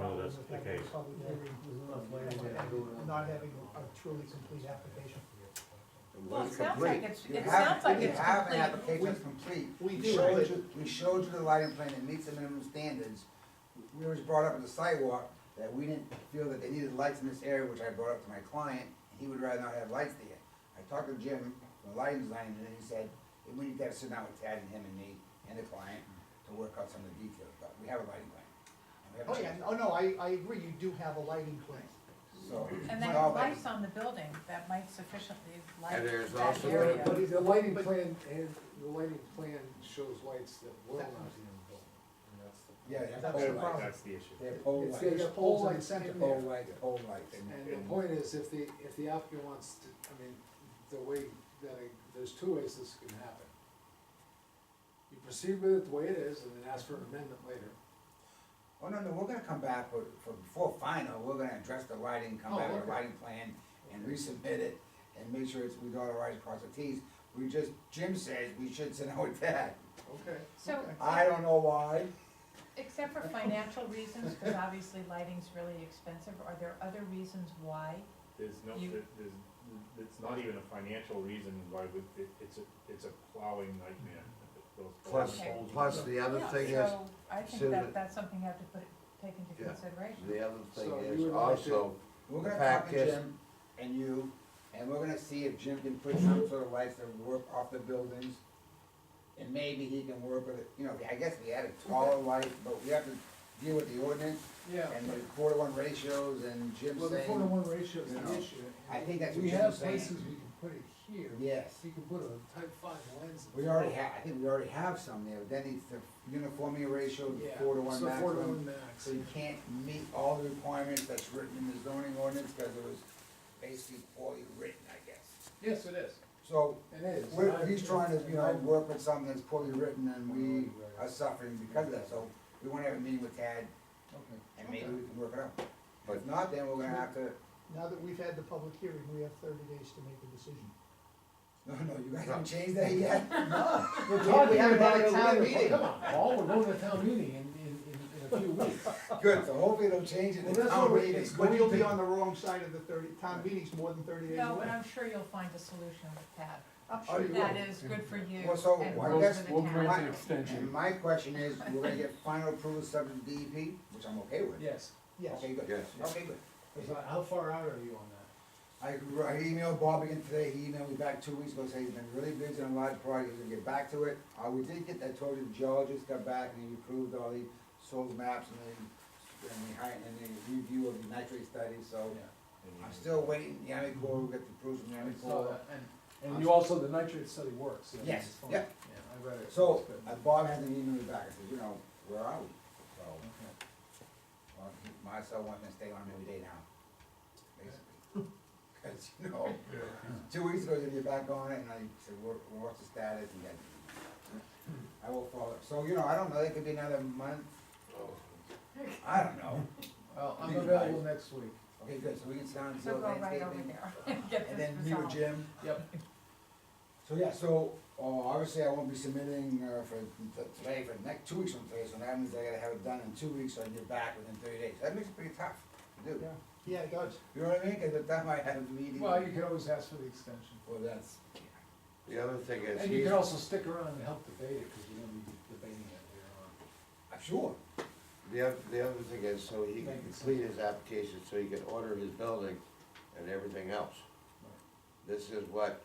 the having a case. public hearing, Not having a truly complete application. Well, it sounds like it's, You it have- sounds like you it's have an complete. application that's complete. We do, showed but- you- We showed you the lighting plan, it meets the minimum standards. We was brought up at the sidewalk that we didn't feel that they needed lights in this area, which I brought up to my client, he would rather not have lights there. I talked to Jim, the lighting designer, and he said, we need to have sit down with Tad and him and me and the client to work out some of the details, but we have a lighting plan. and we have a Oh, yeah, change. oh, no, I, I agree, you do have a lighting plan. So. And it's then all that- lights on the building that might sufficiently light And there's that also- area. But the lighting plan, and the lighting plan shows lights that will not be in the building, and that's the. Yeah, they have That's pole the lights, problem. That's the issue. they have pole It's lights, the- There's yeah, poles pole in the lights center. and pole lights, pole lights. And the point is, if the, if the applicant wants to, I mean, the way, that I- there's two ways this can happen. You proceed with it the way it is, and then ask for an amendment later. Oh, no, no, we're gonna come back for, for, before final, we're gonna address the lighting, come Oh, back with a okay. lighting plan and resubmit it and make sure it's, we do all the right across the Ts. We just, Jim says we should send out that. Okay. So, I don't know why. except for financial reasons, because obviously lighting's really expensive, are there other reasons why? There's no, You- there- there's, it's not even a financial reason why we, it, it's a, it's a plowing nightmare. Those Plus, Okay. poles. plus the other Yeah, thing is, So I so that- think that, that's something you have to put, take into Yeah. consideration. the other thing So you is would like also, We're The gonna fact talk to is- Jim and you, and we're gonna see if Jim can put some sort of lights that work off the buildings. And maybe he can work with it, you know, I guess we had a taller light, but we have to deal with the ordinance Yeah, and the four to one ratios and Jim well, the four to saying, one ratio is you the know, issue. I think that's what We Jim have was saying. places we can put it here, yes. so you can put a type five lens. in We the already front. have, I think we already have some there, but then it's the uniformity ratio, Yeah, four to one so four to maximum. one max. So you can't meet all the requirements that's written in the zoning ordinance, cause it was basically poorly written, I guess. Yes, it is. So, It is. we're, I- he's trying to, you know, I- work with something that's poorly written and we are suffering because of that, so we wanna have a meeting with Tad Okay. and maybe we can work it out. But But- if not, then we're gonna have to, Now that we've had the public hearing, we have thirty days to make a decision. no, no, you guys haven't changed that yet? We're We talking haven't about had a a town meeting. meeting. Come on, Paul, we're going to town meeting in, in, in, in a few weeks. Good, so hopefully they'll change it Well, in that's town what we- meeting. it's But going you'll to- be on the wrong side of the thirty, town meeting's more than thirty days No, but away. I'm sure you'll find a solution with Pat, I'm Oh, sure you you will. that is good for you and Well, works so for the I guess town. we'll grant it. And my question is, we're gonna get final approval subject to DEP, which I'm okay with. Yes, Yes, Okay, good. Yes. Okay, good. 'Cause I- how far out are you on that? I, I emailed Bob again today, he emailed me back two weeks ago, saying he's been really busy on a lot of projects, he's gonna get back to it. Uh, we did get that, told you, the geologist got back and he approved all the soil maps and the, and the height and the review of the nitrate study, so. I'm still waiting, the Army Corps, we got the approval from the Army I saw Corps. that, and, uh, and you also, the nitrate study works. yeah, Yes, it's fine. yeah. I read it. So, It's good. uh, Bob hasn't emailed me back, I said, you know, where are we? So. Okay. Well, he- my son wants me to stay on him every day now, basically. Cause you know, two weeks ago, then you're back on it, and I said, what, what's the status, and then I will follow, so, you know, I don't know, it could be another month, I don't know. Well, I'm Please, available guys. next week. Okay, good, so we can sit down and So do go right over landscaping, there and get and this then you, resolved. Jim, Yep. so, yeah, so, uh, obviously, I won't be submitting, uh, for, t- today, for the next, two weeks from today, so that means I gotta have it done in two weeks, so I can get back within thirty days, that makes it pretty tough to do. Yeah. yeah, it does. You know what I mean, cause by the time I had a meeting. Well, you can always ask for the extension. Well, that's, the other thing is, And you he's, can also stick around and help debate it, because you're gonna be debating it here on. I'm sure. the other, the other thing is, so he can Make it complete his application, so he can order his building and everything else. This is what,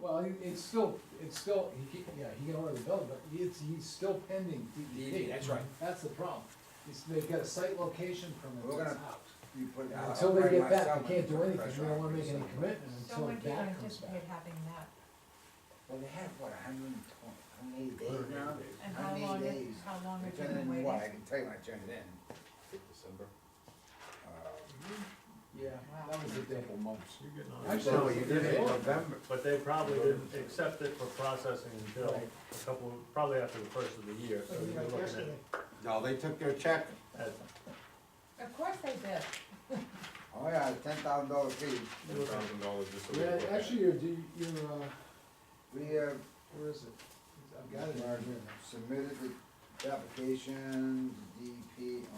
Well, it- it's still, it's still, he can, yeah, he can order the building, but it's, he's still pending DEP. DEP, E that's right. That's the problem. It's, they've got a site location permit We're that's gonna- out. You put it out. Until they get Myself, that, I they can't do put anything. pressure We don't on wanna it, make so. any commitment So until when do you that comes anticipate back. having that? Well, they have, what, a hundred and twenty, hundred and eighty days now? And How how many long, is- days? how long I have you turned it been in what, I waiting? can tell you when I turned it in. December. Uh, Yeah, Mm-hmm. that was a couple months. so you did it in Actually, November, But they probably didn't accept it for processing until Right. a couple, probably after the first of the year, so Like, you're like looking yesterday. at, no, they took their check, at, Of course they did. Oh, yeah, ten thousand dollar fee. Ten thousand dollars just to. Yeah, look at. actually, your, D- your, uh, We, uh, where is it? I've got it right here. submitted the application, DEP